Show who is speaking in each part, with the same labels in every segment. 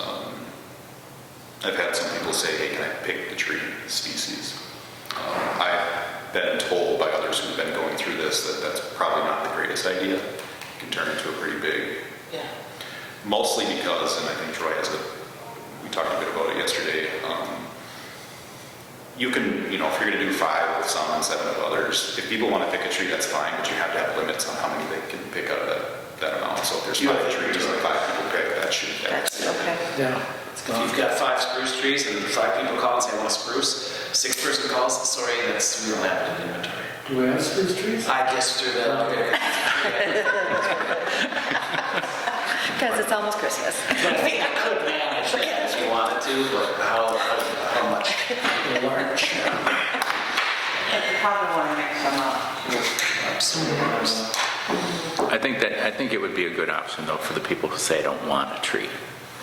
Speaker 1: Um, I've had some people say, hey, can I pick the tree species? Um, I've been told by others who've been going through this that that's probably not the greatest idea. It can turn into a pretty big
Speaker 2: Yeah.
Speaker 1: mostly because, and I think Troy has a, we talked a bit about it yesterday, um, you can, you know, if you're gonna do five with some and seven of others, if people wanna pick a tree, that's fine, but you have to have limits on how many they can pick out of that, that amount. So if there's five trees and five people pick, that should,
Speaker 2: That's okay.
Speaker 3: Yeah.
Speaker 4: If you've got five spruce trees and five people call and say, I want a spruce, sixth person calls, sorry, that's, we don't have it in inventory.
Speaker 3: Do we have spruce trees?
Speaker 4: I guess through that.
Speaker 2: Because it's almost Christmas.
Speaker 4: I think I could manage that if you wanted to, but how, how how much?
Speaker 3: They're large.
Speaker 5: You probably want to mix them up.
Speaker 6: I think that, I think it would be a good option though for the people who say, I don't want a tree.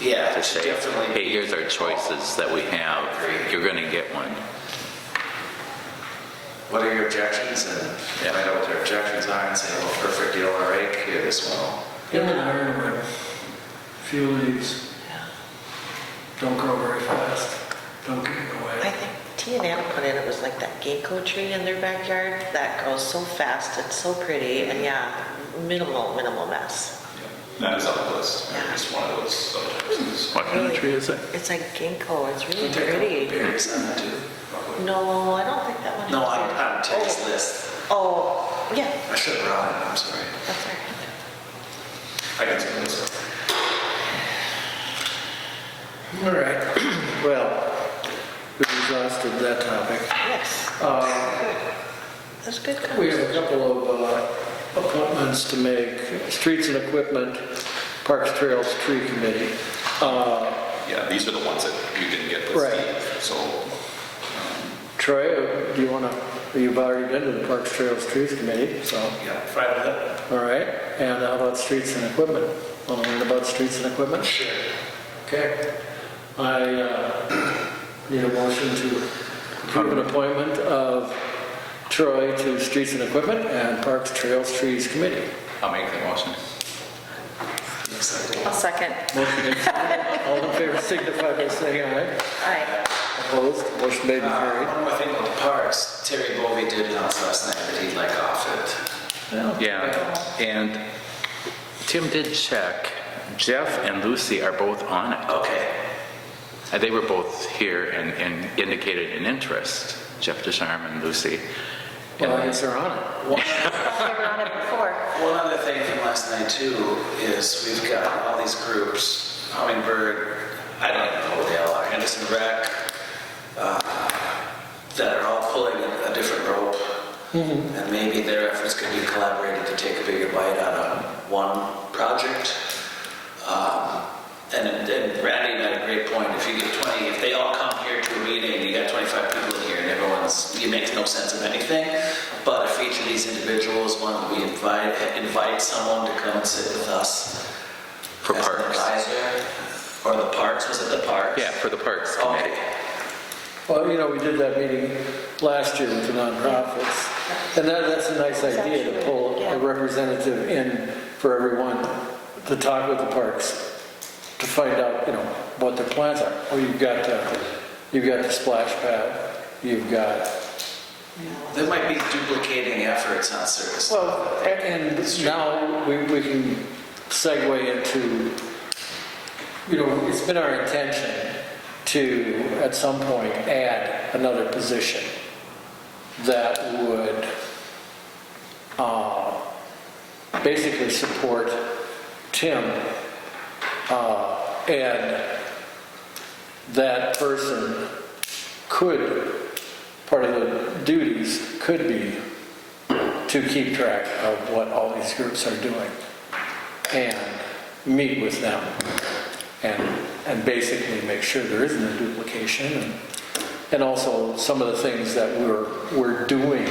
Speaker 4: Yeah,
Speaker 6: To say,
Speaker 4: definitely.
Speaker 6: hey, here's our choices that we have, you're gonna get one.
Speaker 4: What are your objections? And
Speaker 6: Yeah.
Speaker 4: find out what their objections are and say, well, perfect, you don't want to rake, here, this one will.
Speaker 3: Get an ironwood. Few leaves. Don't grow very fast. Don't give it
Speaker 7: I
Speaker 3: away.
Speaker 7: think T and Anna put in, it was like that ginkgo tree in their backyard that grows so fast, it's so pretty, and yeah, minimal, minimal mess.
Speaker 1: that is on the list. It's one of those subjects.
Speaker 6: What kind of tree is it?
Speaker 7: It's like ginkgo, it's
Speaker 4: You
Speaker 7: really
Speaker 4: take a couple
Speaker 7: pretty.
Speaker 4: berries on it too.
Speaker 7: No, I don't think that one.
Speaker 4: No,
Speaker 7: is
Speaker 4: I'm,
Speaker 7: there.
Speaker 4: I'm Teddy's
Speaker 7: Oh.
Speaker 4: list.
Speaker 7: Oh, yeah,
Speaker 4: I should have brought it, I'm sorry.
Speaker 7: that's all right.
Speaker 1: I can see this.
Speaker 3: All right. Well, we've exhausted that topic.
Speaker 7: Yes,
Speaker 3: Uh,
Speaker 7: that's good.
Speaker 3: We
Speaker 7: conversation.
Speaker 3: have a couple of uh, appointments to make. Streets and Equipment, Parks, Trails, Tree Committee. Uh,
Speaker 1: Yeah, these are the ones that you didn't get with
Speaker 3: Right.
Speaker 1: Steve, so
Speaker 3: Troy, do you want to, you've already been to the Parks, Trails, Trees Committee, so.
Speaker 4: Yeah, Friday, that-
Speaker 3: All right, and how about streets and equipment? Want to learn about streets and equipment? Sure. Okay. I uh, need a motion to approve an appointment of Troy to Streets and Equipment and Parks, Trails, Trees Committee.
Speaker 6: I'll make the motion.
Speaker 4: looks like
Speaker 2: I'll second.
Speaker 3: Motion made, seconded. all in favor signify by saying aye.
Speaker 2: Aye.
Speaker 3: Opposed, motion made and
Speaker 4: Uh,
Speaker 3: carried.
Speaker 4: One more thing about the parks, Terry Bovey did announce last night that he'd like off it.
Speaker 6: Yeah, and Tim did check, Jeff and Lucy are both on it.
Speaker 4: Okay,
Speaker 6: And They were both here and, and indicated an interest, Jeff Ducharme and Lucy.
Speaker 3: Well, I guess they're on it.
Speaker 2: They were on it before.
Speaker 4: one other thing from last night too is we've got all these groups, Hummingbird, I don't even know who they all are, Henderson Rec, uh, that are all pulling a different rope. And maybe their efforts could be collaborated to take a bigger bite out of one project. Um, And and Randy made a great point, if you get 20, if they all come here to a meeting, you got 25 people in here, and everyone's, it makes no sense of anything, but if each of these individuals wanted to be invite invite someone to come and sit with us.
Speaker 6: For
Speaker 4: as an
Speaker 6: parks.
Speaker 4: advisor, Or the parks, was it the parks?
Speaker 6: Yeah, for the Parks Committee.
Speaker 4: Okay.
Speaker 3: Well, you know, we did that meeting last year with the nonprofits, and that, that's a nice idea to pull a representative in for everyone to talk with the parks, to find out, you know, what their plans are. Well, you've got, the- you've got the splash pad, you've got,
Speaker 4: There might be duplicating efforts on certain stuff.
Speaker 3: well, a- and now we, we can segue into, you know, it's been our intention to, at some point, add another position that would uh, basically support Tim. uh, And that person could, part of the duties could be to keep track of what all these groups are doing and meet with them and, and basically make sure there isn't a duplication and, and also some of the things that we're, we're doing,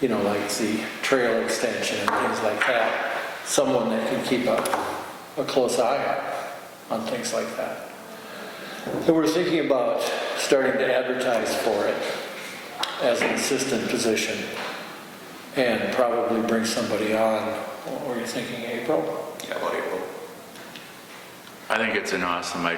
Speaker 3: you know, like the trail extension and things like that, someone that can keep a, a close eye on, on things like that. And we're thinking about starting to advertise for it as an assistant position and probably bring somebody on, what were you thinking, April?
Speaker 1: yeah, about April.
Speaker 6: I think it's an awesome idea.